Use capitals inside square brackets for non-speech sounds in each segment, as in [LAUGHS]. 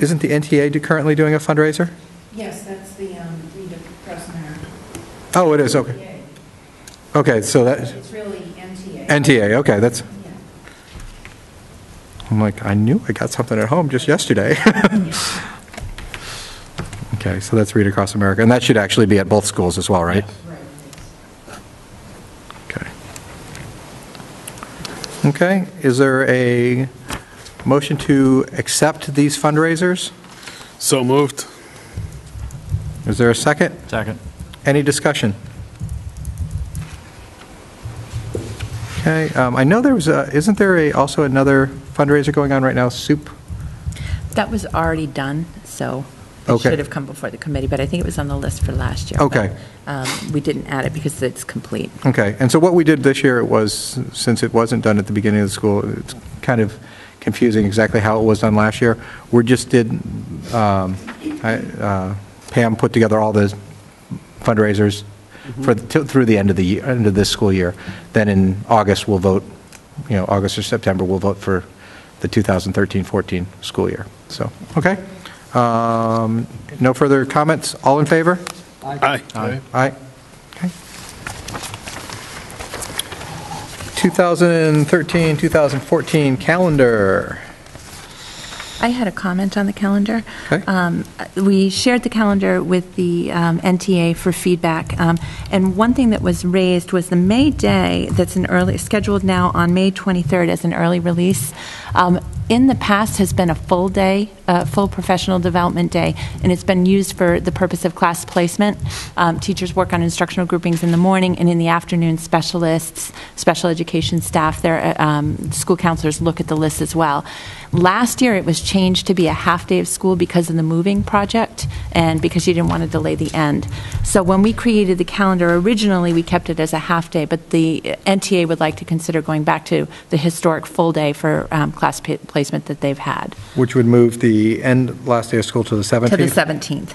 Isn't the NTA do- currently doing a fundraiser? Yes, that's the um, Rita Pressner. Oh, it is, okay. Okay, so that, It's really NTA. NTA, okay, that's, Yeah. I'm like, I knew I got something at home just yesterday. [LAUGHS] Okay, so that's Read Across America, and that should actually be at both schools as well, right? Right. Okay. Okay, is there a motion to accept these fundraisers? So moved. Is there a second? Second. Any discussion? Okay, um, I know there was, a- isn't there a- also another fundraiser going on right now, soup? That was already done, so it Okay. should have come before the committee, but I think it was on the list for last year. Okay. but, um, We didn't add it because it's complete. Okay, and so what we did this year was, since it wasn't done at the beginning of the school, it's kind of confusing exactly how it was done last year. We just did, um, I- uh, Pam put together all the fundraisers for, till- through the end of the, year- end of this school year. Then in August, we'll vote, you know, August or September, we'll vote for the 2013-14 school year. So, okay. Um, No further comments? All in favor? Aye. Aye. Okay. 2013, 2014 calendar. I had a comment on the calendar. Okay. Um, We shared the calendar with the um, NTA for feedback, um, and one thing that was raised was the May Day that's an early, scheduled now on May 23rd as an early release, um, in the past has been a full day, a full professional development day, and it's been used for the purpose of class placement. Um, Teachers work on instructional groupings in the morning, and in the afternoon, specialists, special education staff, their uh, um, school counselors look at the list as well. Last year, it was changed to be a half-day of school because of the moving project and because you didn't want to delay the end. So when we created the calendar, originally, we kept it as a half-day, but the NTA would like to consider going back to the historic full day for um, class pa- placement that they've had, Which would move the end, last day of school to the 17th? to the 17th.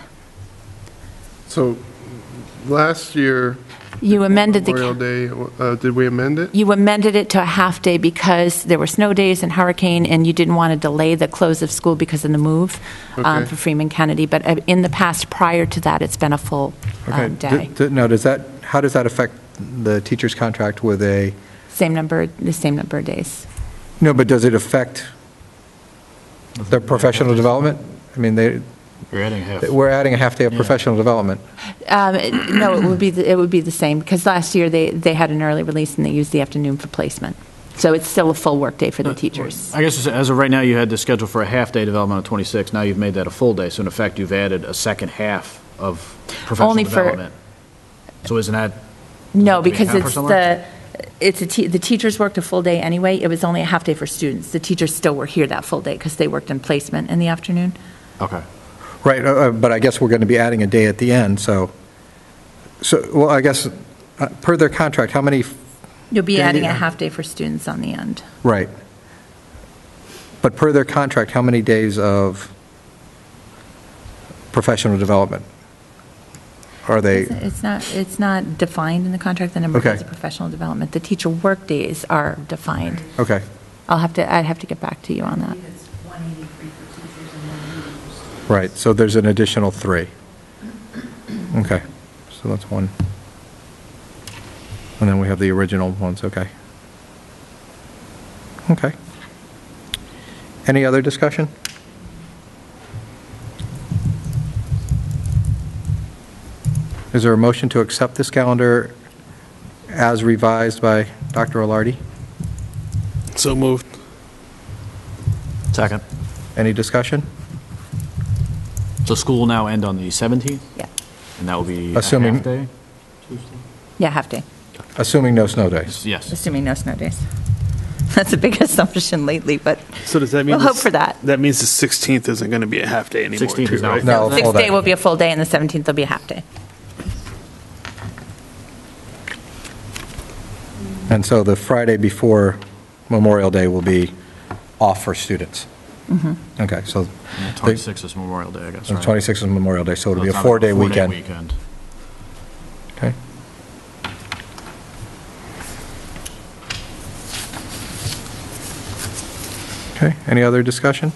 So last year. You amended the, Memorial ca- Day, uh, did we amend it? you amended it to a half-day because there were snow days and hurricane, and you didn't want to delay the close of school because of the move um, Okay. for Freeman Kennedy. But uh, in the past, prior to that, it's been a full Okay. um, d- day. d- Now, does that, how does that affect the teacher's contract with a, Same number, the same number of days. no, but does it affect their professional development? I mean, they, You're adding half. we're adding a half day of professional development. Um, it- No, it would be, the- it would be the same, because last year, they, they had an early release and they used the afternoon for placement. So it's still a full workday for the teachers. I guess as of right now, you had the schedule for a half-day development of 26. Now you've made that a full day, so in effect, you've added a second half of professional Only for- development. So isn't that, No, Does it have to be because half or it's something? the, it's a, te- the teachers worked a full day anyway, it was only a half day for students. The teachers still were here that full day, because they worked in placement in the afternoon. okay. Right, uh, uh, but I guess we're going to be adding a day at the end, so, so, well, I guess, uh, per their contract, how many You'll be Yeah, adding a yeah. half day for students on the end. Right. But per their contract, how many days of professional development are they? It's- It's not, it's not defined in the contract, the number of Okay. days of professional development. The teacher workdays are defined. Okay, I'll have to, I'd have to get back to you on I that. believe it's 183 for teachers and 180 for students. right, so there's an additional three. Okay, so that's one. And then we have the original ones, okay. Okay. Any other discussion? Is there a motion to accept this calendar as revised by Dr. Alardi? So moved. Second. Any discussion? So school will now end on the 17th, Yeah, and that will be a Assuming- half day? yeah, half day, Assuming no snow days. Yes. assuming no snow days. [LAUGHS] That's a big [LAUGHS] assumption lately, but So does that mean? we'll hope this- for that. That means the 16th isn't going to be a half day anymore, 16th too, is now right? No, full Sixth day. day will be a full day, and the 17th will be a half day. And so the Friday before Memorial Day will be off for students. Okay, so And 26 is Memorial Day, I guess, the right? 26th is Memorial Day, so it'll So be a it's not four-day four-day weekend. weekend. Okay. Okay, any other discussion?